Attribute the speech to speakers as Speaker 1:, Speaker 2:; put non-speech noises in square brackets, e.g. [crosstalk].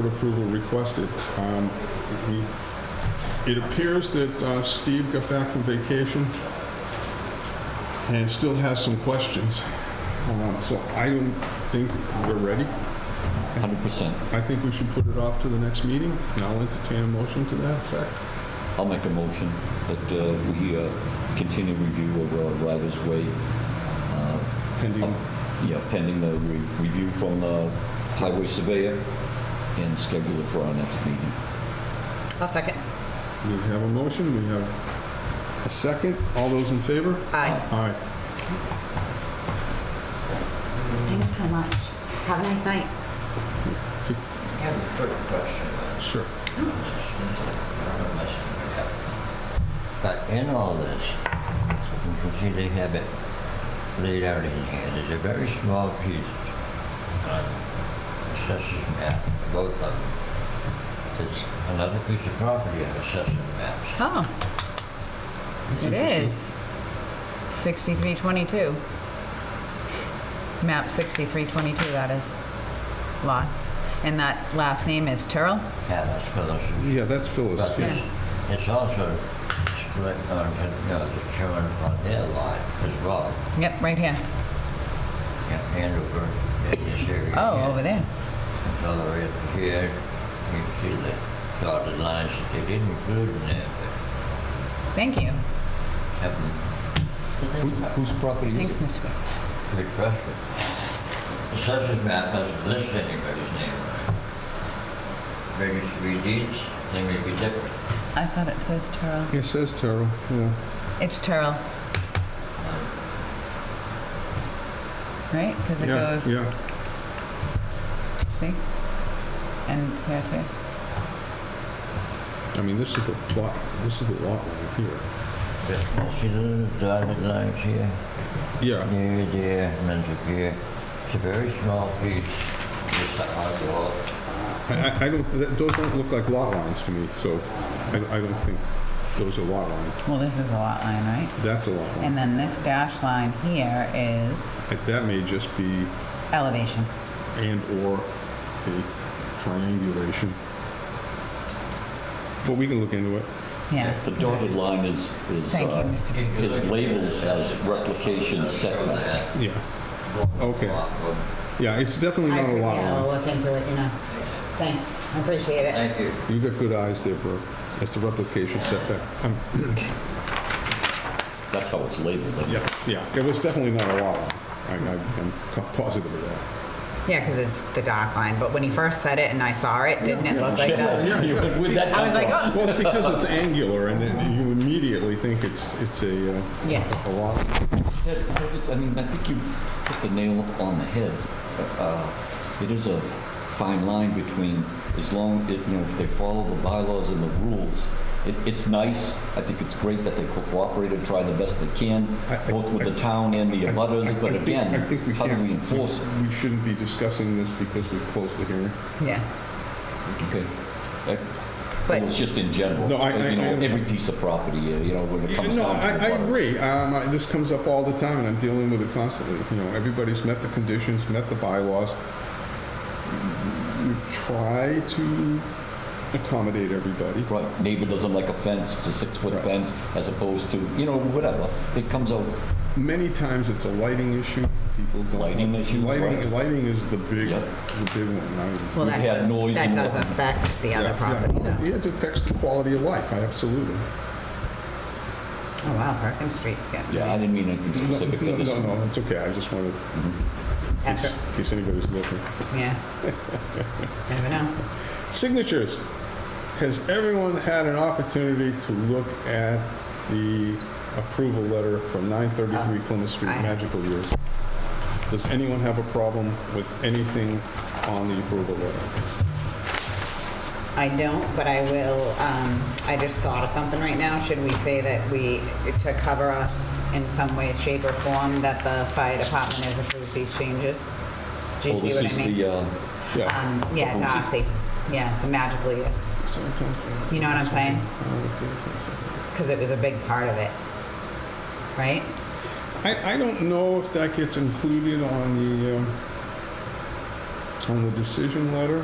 Speaker 1: approval requested. Um, we- It appears that uh, Steve got back from vacation and still has some questions. Uh, So I don't think we're ready.
Speaker 2: Hundred percent.
Speaker 1: I think we should put it off to the next meeting, and I'll entertain a motion to that effect.
Speaker 2: I'll make a motion that uh, we uh, continue review of uh, Riders Way,
Speaker 1: Pending,
Speaker 2: yeah, pending the re- review from the highway surveyor and schedule it for our next meeting.
Speaker 3: I'll second.
Speaker 1: we have a motion, we have a second. All those in favor?
Speaker 3: Aye.
Speaker 1: Aye.
Speaker 4: Thanks so much. Have a nice night.
Speaker 5: I have a quick question.
Speaker 1: Sure.
Speaker 5: I don't know if much of it happened. But in all this, you can see they have it laid out in here. There's a very small piece on assessor's map, both of them. It's another piece of property on assessor's maps.
Speaker 3: Oh,
Speaker 1: That's
Speaker 3: it
Speaker 1: interesting.
Speaker 3: is. 6322. Map 6322, that is. Lot. And that last name is Terrell?
Speaker 5: Yeah, that's for those
Speaker 1: Yeah, that's Phyllis.
Speaker 5: But
Speaker 1: yeah.
Speaker 5: it's, it's also split on, you know, the children on their lot as well.
Speaker 3: Yep, right here.
Speaker 5: Yeah, Andover, in this area.
Speaker 3: Oh,
Speaker 5: here.
Speaker 3: over there.
Speaker 5: It's all the way up here. You can see the dotted lines that they didn't include in there,
Speaker 3: Thank you.
Speaker 5: but have
Speaker 2: Whose property
Speaker 3: Thanks, Mr. Bear.
Speaker 5: them good question. Assessors map doesn't list anybody's name on it. Registry deeds, they may be different.
Speaker 3: I thought it says Terrell.
Speaker 1: It says Terrell, yeah.
Speaker 3: It's Terrell. Right? Because it
Speaker 1: Yeah,
Speaker 3: goes,
Speaker 1: yeah.
Speaker 3: see? And it's here too.
Speaker 1: I mean, this is the plot, this is the lot line here.
Speaker 5: But see the little dotted lines here?
Speaker 1: Yeah,
Speaker 5: Near there, and then to here. It's a very small piece, just a hard wall.
Speaker 1: I, I- I don't, that- those don't look like lot lines to me, so I, I don't think those are lot lines.
Speaker 3: Well, this is a lot line, right?
Speaker 1: That's a lot line.
Speaker 3: And then this dash line here is
Speaker 1: Like, That may just be
Speaker 3: elevation.
Speaker 1: and/or a triangulation. But we can look into it.
Speaker 3: Yeah.
Speaker 2: The dotted line is, is,
Speaker 3: Thank you,
Speaker 2: uh,
Speaker 3: Mr. Bean.
Speaker 2: is labeled as replication setback.
Speaker 1: Yeah. Okay.
Speaker 5: Well,
Speaker 1: Yeah, it's definitely
Speaker 4: I
Speaker 1: not a
Speaker 4: appre-
Speaker 1: lot
Speaker 4: yeah, I'll
Speaker 1: line.
Speaker 4: look into it, you know. Thanks. I appreciate it.
Speaker 5: Thank you.
Speaker 1: You got good eyes there, bro. That's a replication setback. Um,
Speaker 2: That's how it's labeled.
Speaker 1: Yeah, yeah. It was definitely not a lot line. I, I- I'm co- positive of that.
Speaker 3: Yeah, because it's the dark line, but when he first said it and I saw it, didn't it look like that?
Speaker 2: [laughs] Yeah. Where'd that
Speaker 3: I
Speaker 2: come
Speaker 3: was like,
Speaker 2: from?
Speaker 3: oh,
Speaker 1: Well, it's because it's angular, and then you immediately think it's, it's a, uh,
Speaker 3: Yeah.
Speaker 1: a lot.
Speaker 2: Yeah, I just- I mean, I think you hit the nail on the head. Uh, It is a fine line between, as long, it- you know, if they follow the bylaws and the rules, it, it's nice. I think it's great that they cooperate and try the best they can,
Speaker 1: I- I-
Speaker 2: both with the town and the abutters,
Speaker 1: I- I
Speaker 2: but
Speaker 1: think-
Speaker 2: again,
Speaker 1: I think
Speaker 2: how do
Speaker 1: can't-
Speaker 2: we enforce it?
Speaker 1: We shouldn't be discussing this because we've closed the hearing.
Speaker 3: Yeah.
Speaker 2: Okay. That-
Speaker 3: But-
Speaker 2: Well, it's just in general,
Speaker 1: No, I- I-
Speaker 2: you know,
Speaker 1: I-
Speaker 2: every piece of property, uh, you know, when it comes
Speaker 1: No,
Speaker 2: down to
Speaker 1: I, I
Speaker 2: the abutters.
Speaker 1: agree. Um, I- this comes up all the time, and I'm dealing with it constantly. You know, everybody's met the conditions, met the bylaws. We try to accommodate everybody.
Speaker 2: Right, neighbor doesn't like a fence, it's a six-foot
Speaker 1: Right.
Speaker 2: fence, as opposed to, you know, whatever. It comes out,
Speaker 1: Many times it's a lighting issue. People don't.
Speaker 2: Lighting issues,
Speaker 1: Lighting,
Speaker 2: right.
Speaker 1: lighting is the big,
Speaker 2: Yep.
Speaker 1: the big one. I-
Speaker 2: We've
Speaker 3: Well, that
Speaker 2: had
Speaker 3: does,
Speaker 2: noise
Speaker 3: that
Speaker 2: and
Speaker 3: does
Speaker 2: whatnot.
Speaker 3: affect the other property
Speaker 1: yeah.
Speaker 3: though.
Speaker 1: Yeah, it affects the quality of life. I absolutely.
Speaker 3: Oh, wow, Perkins Street's getting.
Speaker 2: yeah, I didn't mean anything specific to
Speaker 1: no,
Speaker 2: this
Speaker 1: no,
Speaker 2: one.
Speaker 1: no, it's okay. I just wanted, in
Speaker 3: Effort.
Speaker 1: case, in case anybody's looking.
Speaker 3: Yeah. Never know.
Speaker 1: Signatures. Has everyone had an opportunity to look at the approval letter from 933 Plymouth Street,
Speaker 3: Um, I have.
Speaker 1: Magical Years? Does anyone have a problem with anything on the approval letter?
Speaker 3: I don't, but I will, um, I just thought of something right now. Should we say that we, to cover us in some way, shape or form, that the fire department has approved these changes? Do you
Speaker 2: Well, this
Speaker 3: see
Speaker 2: is
Speaker 3: what I mean?
Speaker 2: the, uh,
Speaker 1: Yeah.
Speaker 3: Um, yeah,
Speaker 2: proposal.
Speaker 3: Doxy. Yeah, the magically is. You know what I'm saying?
Speaker 1: Oh,
Speaker 3: Because it was a big part of it, right?
Speaker 1: I, I don't know if that gets included on the, um, on the decision letter.